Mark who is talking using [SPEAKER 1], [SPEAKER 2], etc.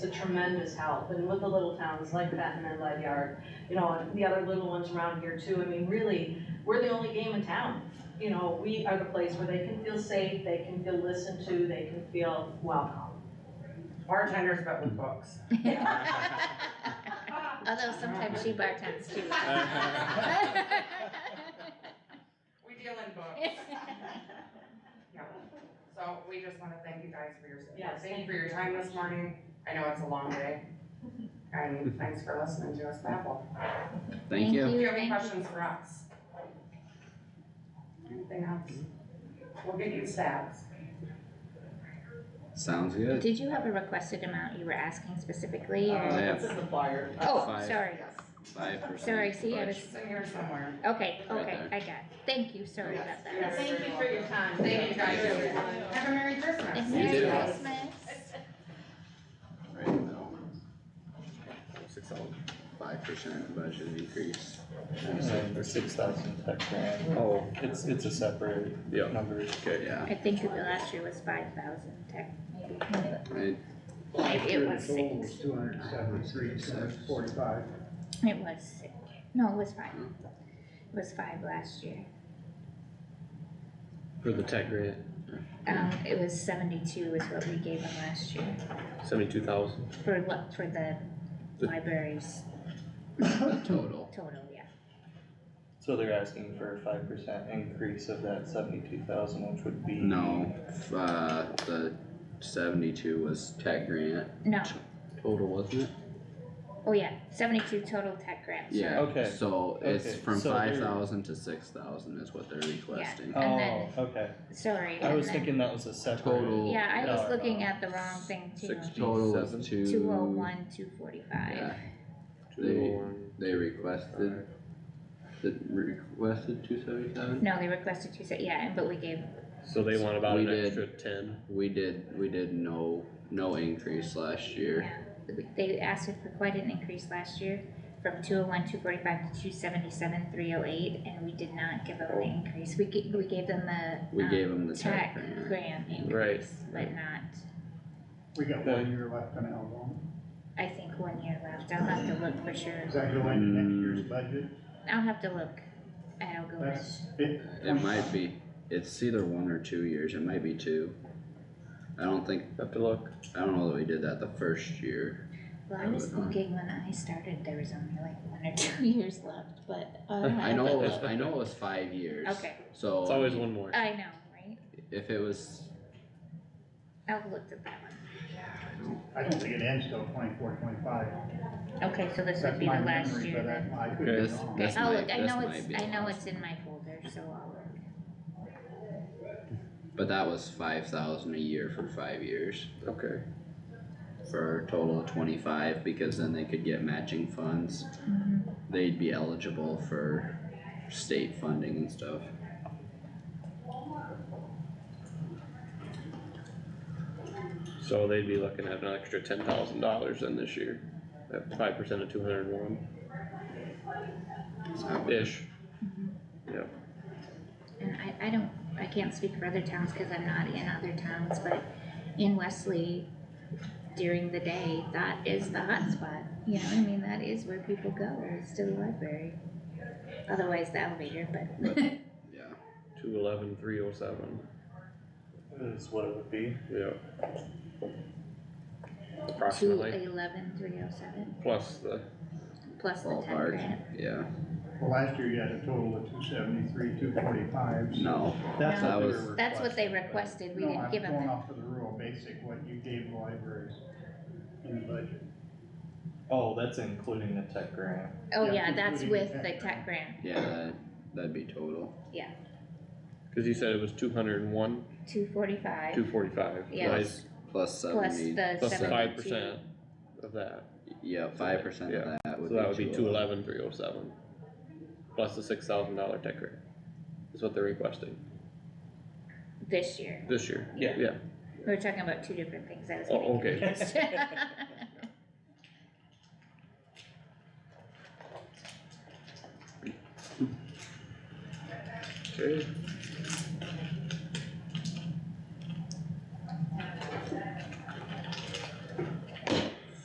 [SPEAKER 1] a tremendous help, and with the little towns like Benton and Ledyard, you know, and the other little ones around here too, I mean, really, we're the only game in town. You know, we are the place where they can feel safe, they can feel listened to, they can feel welcome.
[SPEAKER 2] Bartenders, but with books.
[SPEAKER 3] Although sometimes she bartends too.
[SPEAKER 2] We deal in books. Yeah. So we just wanna thank you guys for your
[SPEAKER 1] Yes,
[SPEAKER 2] support.
[SPEAKER 1] thank
[SPEAKER 2] Thank you for your time this morning. I know it's a long day. And thanks for listening to us babble.
[SPEAKER 4] Thank you.
[SPEAKER 2] Do you have any
[SPEAKER 3] thank you.
[SPEAKER 2] questions for us? Anything else? We'll get you stats.
[SPEAKER 4] Sounds good.
[SPEAKER 3] Did you have a requested amount you were asking specifically
[SPEAKER 5] Uh,
[SPEAKER 3] or?
[SPEAKER 4] Yeah.
[SPEAKER 5] That's in the flyer.
[SPEAKER 3] Oh,
[SPEAKER 4] Five.
[SPEAKER 3] sorry.
[SPEAKER 2] Yes,
[SPEAKER 4] Five percent.
[SPEAKER 3] Sorry, see, I was,
[SPEAKER 2] it's in here somewhere.
[SPEAKER 3] okay,
[SPEAKER 4] Right
[SPEAKER 3] okay, I got it. Thank you, sorry
[SPEAKER 2] Yes,
[SPEAKER 3] about
[SPEAKER 2] yes.
[SPEAKER 3] that.
[SPEAKER 1] Thank you for your time.
[SPEAKER 2] Thank you guys.
[SPEAKER 1] Everyone.
[SPEAKER 2] Have a Merry Christmas.
[SPEAKER 3] And
[SPEAKER 4] You
[SPEAKER 3] Merry
[SPEAKER 4] too.
[SPEAKER 3] Christmas.
[SPEAKER 4] Six oh, five percent budget increase.
[SPEAKER 5] Or six thousand tech grant.
[SPEAKER 4] Oh.
[SPEAKER 5] It's, it's a separate
[SPEAKER 4] Yeah,
[SPEAKER 5] number.
[SPEAKER 4] okay, yeah.
[SPEAKER 3] I think that the last year was five thousand tech, maybe,
[SPEAKER 4] I-
[SPEAKER 3] maybe it was
[SPEAKER 6] Total was
[SPEAKER 3] six,
[SPEAKER 6] two hundred and seventy-three, six forty-five.
[SPEAKER 3] it was six, no, it was five. It was five last year,
[SPEAKER 7] For the tech grant,
[SPEAKER 3] um, it was seventy-two is what we gave them last year,
[SPEAKER 7] seventy-two thousand.
[SPEAKER 3] for what, for the libraries
[SPEAKER 4] Total.
[SPEAKER 3] total, yeah.
[SPEAKER 5] So they're asking for a five percent increase of that seventy-two thousand, which would be.
[SPEAKER 4] No, uh, the seventy-two was tech grant.
[SPEAKER 3] No,
[SPEAKER 7] Total, wasn't it?
[SPEAKER 3] oh yeah, seventy-two total tech grants.
[SPEAKER 4] Yeah.
[SPEAKER 5] Okay,
[SPEAKER 4] So it's
[SPEAKER 5] okay,
[SPEAKER 4] from
[SPEAKER 5] so they're-
[SPEAKER 4] five thousand to six thousand is what they're requesting.
[SPEAKER 3] And
[SPEAKER 5] Oh,
[SPEAKER 3] then-
[SPEAKER 5] okay.
[SPEAKER 3] Sorry.
[SPEAKER 5] I
[SPEAKER 3] and
[SPEAKER 5] was
[SPEAKER 3] then-
[SPEAKER 5] thinking uh, that was a separate.
[SPEAKER 4] Total.
[SPEAKER 3] Yeah, I was
[SPEAKER 5] dollar
[SPEAKER 3] looking
[SPEAKER 5] amount.
[SPEAKER 3] at the wrong thing too.
[SPEAKER 7] Sixty.
[SPEAKER 4] Total
[SPEAKER 7] Seven.
[SPEAKER 4] of two.
[SPEAKER 3] Two oh one, two forty-five.
[SPEAKER 4] Yeah,
[SPEAKER 7] Two oh one.
[SPEAKER 4] they requested, the requested two seventy-seven?
[SPEAKER 3] No, they requested two, se- yeah, and- but we gave,
[SPEAKER 7] So they want about
[SPEAKER 4] We
[SPEAKER 7] an
[SPEAKER 4] did.
[SPEAKER 7] extra ten.
[SPEAKER 4] We did, we did no, no increase last year.
[SPEAKER 3] yeah, they asked for quite an increase last year from two oh one, two forty-five to two seventy-seven, three oh eight, and we did not give them the increase. We gave, we gave them the.
[SPEAKER 4] Oh. We
[SPEAKER 3] um,
[SPEAKER 4] gave them the
[SPEAKER 3] Tech
[SPEAKER 4] tech grant.
[SPEAKER 3] grant
[SPEAKER 7] Right.
[SPEAKER 3] increase, but not,
[SPEAKER 6] We got one year left on Algonquin.
[SPEAKER 3] I think one year left. I'll have to look for sure.
[SPEAKER 6] Does that go into next year's budget?
[SPEAKER 3] I'll have to look. I'll go with.
[SPEAKER 6] That's it.
[SPEAKER 4] It might be, it's either one or two years, it might be two. I don't think,
[SPEAKER 7] Have to look.
[SPEAKER 4] I don't know that we did that the first year.
[SPEAKER 3] Well, I
[SPEAKER 4] I
[SPEAKER 3] was
[SPEAKER 4] would not.
[SPEAKER 3] thinking when I started, there was only like one or two years left, but. uh,
[SPEAKER 4] I know it was, I know it was five years.
[SPEAKER 3] Okay,
[SPEAKER 4] So.
[SPEAKER 7] It's always one more.
[SPEAKER 3] I know, right?
[SPEAKER 4] If it was,
[SPEAKER 3] I've looked at that one.
[SPEAKER 6] I don't think it ends till twenty-four, twenty-five.
[SPEAKER 3] Okay, so this would
[SPEAKER 6] That's
[SPEAKER 3] be the
[SPEAKER 6] my
[SPEAKER 3] last
[SPEAKER 6] memory,
[SPEAKER 3] year
[SPEAKER 6] but
[SPEAKER 3] then.
[SPEAKER 6] I I could
[SPEAKER 7] Okay.
[SPEAKER 6] be
[SPEAKER 4] this,
[SPEAKER 6] wrong.
[SPEAKER 4] this
[SPEAKER 3] I'll
[SPEAKER 4] might,
[SPEAKER 3] look, I
[SPEAKER 4] this
[SPEAKER 3] know
[SPEAKER 4] might be.
[SPEAKER 3] it's, I know
[SPEAKER 4] lost.
[SPEAKER 3] it's in my folder, so I'll look.
[SPEAKER 4] But that was five thousand a year for five years,
[SPEAKER 7] Okay.
[SPEAKER 4] for a total of twenty-five, because then they could get matching funds.
[SPEAKER 3] Mm-hmm.
[SPEAKER 4] They'd be eligible for state funding and stuff.
[SPEAKER 7] So they'd be looking at an extra ten thousand dollars then this year. At five percent of two hundred and one
[SPEAKER 4] Is that what-
[SPEAKER 7] ish. Yep.
[SPEAKER 3] And I, I don't, I can't speak for other towns because I'm not in other towns, but in Wesley, during the day, that is the hotspot. You know, I mean, that is where people go, is to the library. Otherwise the elevator, but.
[SPEAKER 4] Yeah,
[SPEAKER 7] Two eleven, three oh seven.
[SPEAKER 5] Is what it would be.
[SPEAKER 7] Yep.
[SPEAKER 3] Two
[SPEAKER 7] Approximately.
[SPEAKER 3] eleven, three oh seven,
[SPEAKER 7] Plus the,
[SPEAKER 3] plus the ten
[SPEAKER 4] ballpark,
[SPEAKER 3] grand.
[SPEAKER 4] yeah,
[SPEAKER 6] Well, last year you had a total of two seventy-three, two forty-five.
[SPEAKER 4] no,
[SPEAKER 3] That's
[SPEAKER 4] what they
[SPEAKER 5] were
[SPEAKER 3] That's what they requested, we
[SPEAKER 6] No,
[SPEAKER 3] didn't
[SPEAKER 6] I'm
[SPEAKER 3] give them
[SPEAKER 6] going
[SPEAKER 3] that.
[SPEAKER 6] off of the rural basic, what you gave the libraries in the budget.
[SPEAKER 5] Oh, that's including the tech grant.
[SPEAKER 3] Oh
[SPEAKER 6] yeah,
[SPEAKER 3] yeah, that's
[SPEAKER 6] including
[SPEAKER 3] with
[SPEAKER 6] the
[SPEAKER 3] the
[SPEAKER 6] tech
[SPEAKER 3] tech grant,
[SPEAKER 4] yeah, that, that'd be total.
[SPEAKER 7] cause you said it was two hundred and one,
[SPEAKER 3] two forty-five,
[SPEAKER 7] two forty-five.
[SPEAKER 3] Yeah.
[SPEAKER 4] Plus- Plus
[SPEAKER 3] plus
[SPEAKER 4] seventy,
[SPEAKER 3] the
[SPEAKER 7] Plus five
[SPEAKER 3] seventy-two.
[SPEAKER 7] percent of that.
[SPEAKER 4] yeah, five percent
[SPEAKER 7] Yeah.
[SPEAKER 4] of that would
[SPEAKER 7] So
[SPEAKER 4] be.
[SPEAKER 7] that would be two eleven, three oh seven. Plus the six thousand dollar tech grant. Is what they're requesting
[SPEAKER 3] This year,
[SPEAKER 7] this year.
[SPEAKER 5] Yeah.
[SPEAKER 7] Yeah.
[SPEAKER 3] we were talking about two different things, I was
[SPEAKER 7] Oh,
[SPEAKER 3] getting
[SPEAKER 7] okay.
[SPEAKER 3] confused.
[SPEAKER 7] Okay.